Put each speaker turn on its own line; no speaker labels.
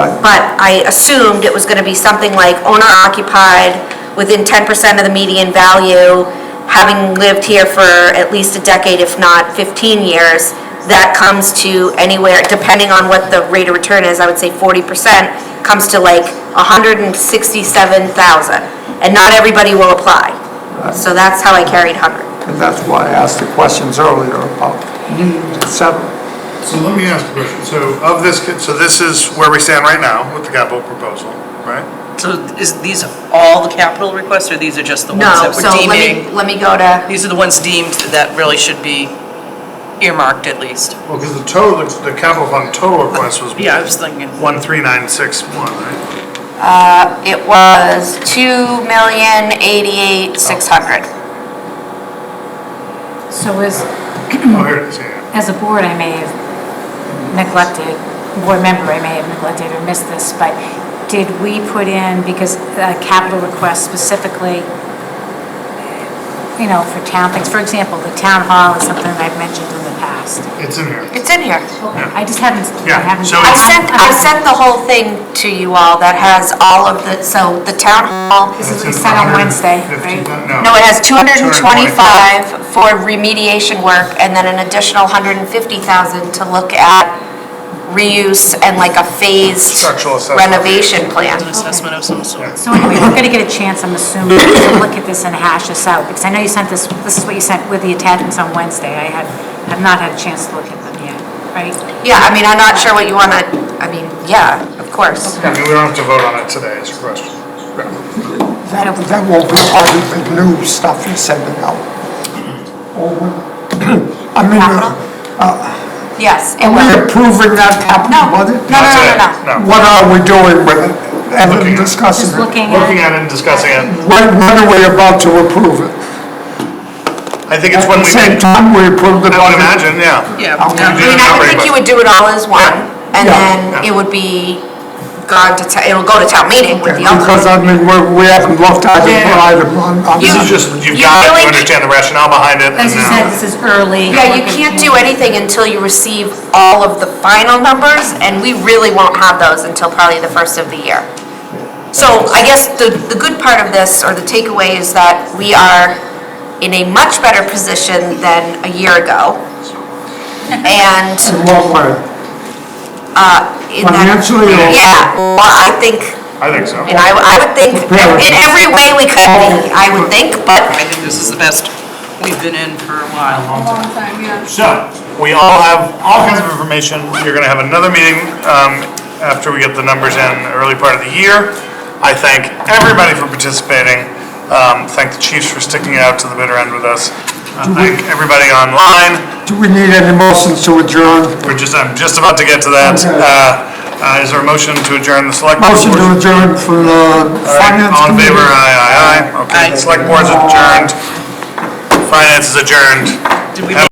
but I assumed it was gonna be something like owner occupied, within ten percent of the median value, having lived here for at least a decade, if not fifteen years, that comes to anywhere, depending on what the rate of return is, I would say forty percent, comes to like hundred and sixty-seven thousand, and not everybody will apply. So that's how I carried hundred.
And that's why I asked the questions earlier about need, et cetera.
So let me ask a question. So of this, so this is where we stand right now with the capital proposal, right?
So is these all the capital requests, or these are just the ones
No,
that
so
were
let me,
deeming?
let me go to,
These are the ones deemed that really should be earmarked at least.
Well, because the total, the capital fund total request was
Yeah, I was thinking.
one three nine six one, right?
uh, it was two million eighty-eight, six hundred.
So as,
Oh, here it is, yeah.
as a board, I may have neglected, board member, I may have neglected or missed this, but did we put in, because the capital request specifically, you know, for town things, for example, the town hall is something I've mentioned in the past.
It's in here.
It's in here.
I just haven't,
Yeah,
I haven't.
so
I sent, I sent the whole thing to you all that has all of the, so the town hall,
This
It's
is what we
in
sent on Wednesday,
115
right?
no,
No.
it has 225 for remediation work and then an additional 150,000 to look at reuse and like a phased
Structural assessment.
renovation plan.
An assessment of some sort.
So anyway, we're gonna get a chance, I'm assuming, to look at this and hash this out, because I know you sent this, this is what you sent with the attachments on Wednesday. I had, have not had a chance to look at them yet, right?
Yeah, I mean, I'm not sure what you want to, I mean, yeah, of course.
I mean, we don't have to vote on it today, is your question.
That, that will be all of the new stuff you're sending out. Over. I mean, uh,
Yes,
are
it
we
will.
approving that
No,
capital
no,
budget?
no, no, no,
Not
no.
today,
What are we doing with it and then
Looking at it.
Just
discussing it?
looking
Looking
at,
at it and discussing it.
When, when are we about to approve it?
I think it's
At
when
the
we,
same
I
time, we approve the
would
budget.
imagine, yeah.
Yeah.
I'll
yeah.
I
do
mean, I would think you would do it all as one, and
Yeah.
then it would be gone to, ta- it'll go to town meeting with the other.
Because I mean, we're, we haven't looked at it
Yeah.
right on, on.
This is just, you've got to understand the rationale behind it.
as
and
you
now-
said, this is early.
Yeah, you can't do anything until you receive all of the final numbers, and we really won't have those until probably the first of the year. So I guess the, the good part of this, or the takeaway, is that we are in a much better position than a year ago. And
In what way?
in that,
Financially or?
yeah, well, I think,
I think so.
and I, I would think, in every way we could be, I would think, but
I think this is the best we've been in for a while.
So, we all have all kinds of information. You're gonna have another meeting um, after we get the numbers in, early part of the year. I thank everybody for participating. Um, Thank the chiefs for sticking it out to the bitter end with us. I Thank everybody online.
Do we need any motions to adjourn?
We're just, I'm just about to get to that.
Okay.
Uh, uh, Is there a motion to adjourn the select? board?
Motion to adjourn for the
All right,
finance
All in
committee.
favor, uh, aye, aye, aye. Okay,
Aye.
select board's adjourned. Finance is adjourned.
Did we
Have a-